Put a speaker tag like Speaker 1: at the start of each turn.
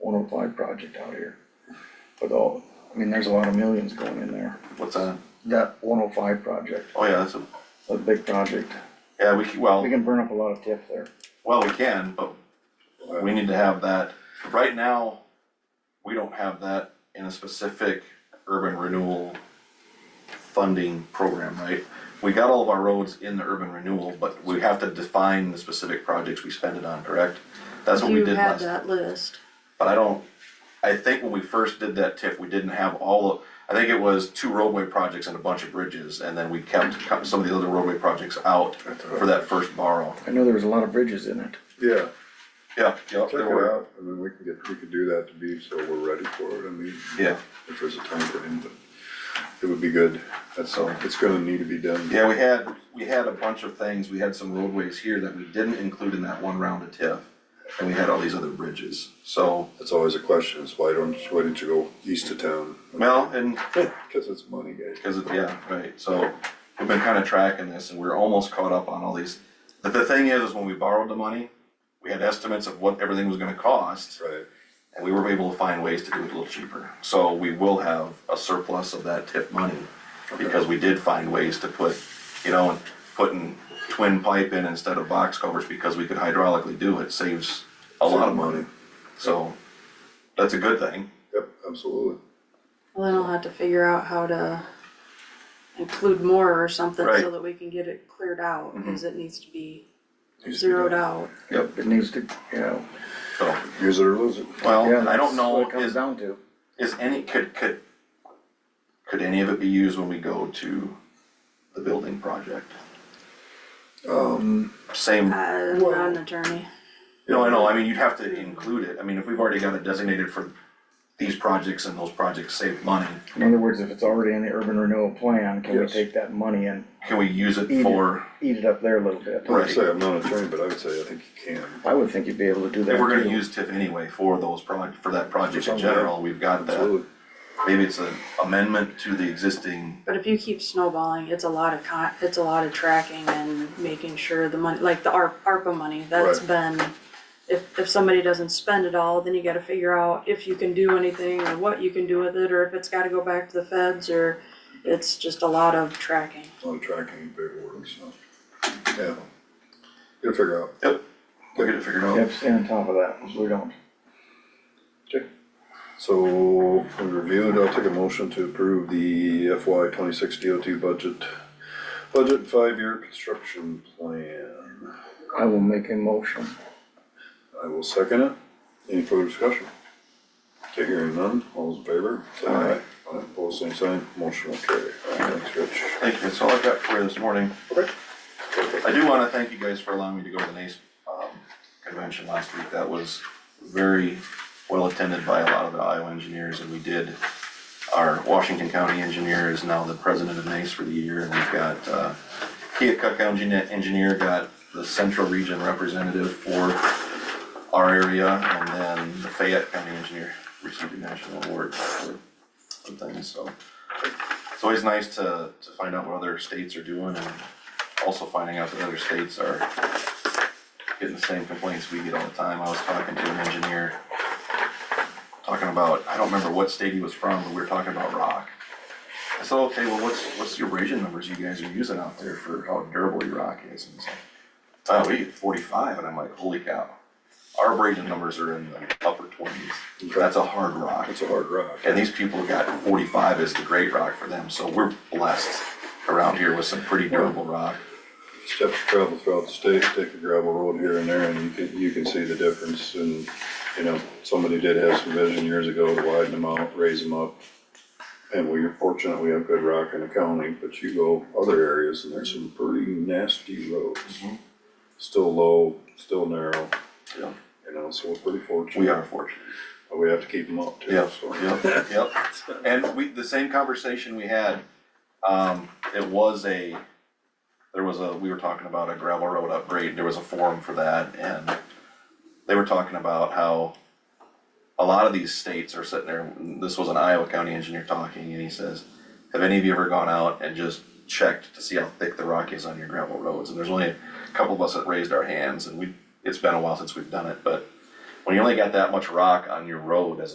Speaker 1: Road oh Five project out here. But all, I mean, there's a lot of millions going in there.
Speaker 2: What's that?
Speaker 1: That one oh five project,
Speaker 2: Oh, yeah, that's a,
Speaker 1: a big project.
Speaker 2: yeah, we, c-
Speaker 1: We
Speaker 2: well,
Speaker 1: can burn up a lot of TIF there.
Speaker 2: well, we can, but we need to have that. Right now, we don't have that in a specific urban renewal funding program, right? We got all of our roads in the urban renewal, but we have to define the specific projects we spend it on, correct? That's what we
Speaker 3: You
Speaker 2: did
Speaker 3: had
Speaker 2: last.
Speaker 3: that list.
Speaker 2: But I don't, I think when we first did that TIF, we didn't have all of, I think it was two roadway projects and a bunch of bridges, and then we kept co- some of the other roadway projects out for that first borrow.
Speaker 1: I know there was a lot of bridges in it.
Speaker 4: Yeah,
Speaker 2: Yeah, yeah,
Speaker 4: check it
Speaker 2: there were,
Speaker 4: out, and then we can get, we can do that to be, so we're ready for it, I mean,
Speaker 2: yeah,
Speaker 4: if there's a time for him, but it would be good, that's all, it's gonna need to be done.
Speaker 2: yeah, we had, we had a bunch of things, we had some roadways here that we didn't include in that one round of TIF. And we had all these other bridges, so,
Speaker 4: That's always a question, is why don't, why didn't you go east of town?
Speaker 2: well, and
Speaker 4: Cause it's money, guys.
Speaker 2: Because of, yeah, right, so we've been kind of tracking this and we're almost caught up on all these. The, the thing is, is when we borrowed the money, we had estimates of what everything was gonna cost.
Speaker 4: Right,
Speaker 2: And we were able to find ways to do it a little cheaper. So we will have a surplus of that tip money. Because we did find ways to put, you know, putting twin pipe in instead of box covers because we could hydraulically do it saves a lot of money. So that's a good thing.
Speaker 4: yep, absolutely.
Speaker 3: Well, then I'll have to figure out how to include more or something so
Speaker 2: Right. Mm-hmm.
Speaker 3: that we can get it cleared out, cause it needs to be
Speaker 4: Needs to be
Speaker 3: zeroed
Speaker 4: done.
Speaker 3: out.
Speaker 2: Yep.
Speaker 1: It needs to, you know.
Speaker 2: So,
Speaker 4: Use it or lose it.
Speaker 1: yeah,
Speaker 2: well, I
Speaker 1: that's
Speaker 2: don't know,
Speaker 1: What it comes
Speaker 2: is-
Speaker 1: down to.
Speaker 2: Is any, could, could, could any of it be used when we go to the building project?
Speaker 4: Um,
Speaker 2: Same,
Speaker 3: Uh, I'm not an attorney.
Speaker 2: no, I know, I mean, you'd have to include it, I mean, if we've already got it designated for these projects and those projects save money,
Speaker 1: In other words, if it's already in the urban renewal plan, can we
Speaker 4: Yes.
Speaker 1: take that money and
Speaker 2: can we use
Speaker 1: Eat
Speaker 2: it
Speaker 1: it.
Speaker 2: for,
Speaker 1: eat it up there a little bit?
Speaker 4: I would
Speaker 2: Right.
Speaker 4: say, I'm not an attorney, but I would say I think you can.
Speaker 1: I would think you'd be able to do that.
Speaker 2: if we're gonna
Speaker 1: too.
Speaker 2: use TIF anyway for those proj, for that project in
Speaker 4: Something like that.
Speaker 2: general, we've got that.
Speaker 4: Absolutely.
Speaker 2: Maybe it's an amendment to the existing,
Speaker 3: But if you keep snowballing, it's a lot of con, it's a lot of tracking and making sure the money, like the ARP, ARPA money, that's been, if, if somebody doesn't spend it all, then you gotta figure out if you can do anything or what you can do with it, or if it's gotta go back to the feds, or it's just a lot of tracking.
Speaker 4: A lot of tracking, big word and stuff. Yeah. You'll figure out.
Speaker 2: yep, we'll get it figured out.
Speaker 1: Yep, stay on top of that, we don't.
Speaker 4: So, we reviewed, I'll take a motion to approve the FY twenty-six DOT budget, budget five-year construction plan.
Speaker 1: I will make a motion.
Speaker 4: I will second it. Any further discussion? Okay, hearing none, all those in favor? say
Speaker 2: Aye.
Speaker 4: Aye, opposed, same sign, motion will carry. Thanks, Rich.
Speaker 2: Thank you, that's all I've got for you this morning.
Speaker 4: Okay.
Speaker 2: I do wanna thank you guys for allowing me to go to the NACE, um, convention last week, that was very well attended by a lot of the Iowa engineers, and we did, our Washington County engineer is now the president of NACE for the year, and we've got, uh, Keokuk County engineer- engineer got the central region representative for our area, and then the Fayette County engineer received a national award for some things, so. It's always nice to, to find out what other states are doing and also finding out that other states are getting the same complaints we get all the time. I was talking to an engineer, talking about, I don't remember what state he was from, but we were talking about rock. I said, okay, well, what's, what's the abrasion numbers you guys are using out there for how durable your rock is? And he's like, oh, we get forty-five, and I'm like, holy cow. Our abrasion numbers are in the upper twenties, that's a hard rock.
Speaker 4: That's a hard rock.
Speaker 2: And these people got forty-five as the great rock for them, so we're blessed around here with some pretty durable rock.
Speaker 4: Step travel throughout the state, take a gravel road here and there, and you can, you can see the difference, and, you know, somebody did have some vision years ago to widen them out, raise them up. And we are fortunate, we have good rock in the county, but you go other areas, and there's some pretty nasty roads. Still low, still narrow,
Speaker 2: Mm-hmm. Yeah.
Speaker 4: you know, so we're pretty fortunate.
Speaker 2: We are fortunate.
Speaker 4: But we have to keep them up too,
Speaker 2: Yep,
Speaker 4: so.
Speaker 2: yep, yep. And we, the same conversation we had, um, it was a, there was a, we were talking about a gravel road upgrade, there was a forum for that, and they were talking about how a lot of these states are sitting there, this was an Iowa County engineer talking, and he says, have any of you ever gone out and just checked to see how thick the rock is on your gravel roads? And there's only a couple of us that raised our hands, and we, it's been a while since we've done it, but when you only got that much rock on your road as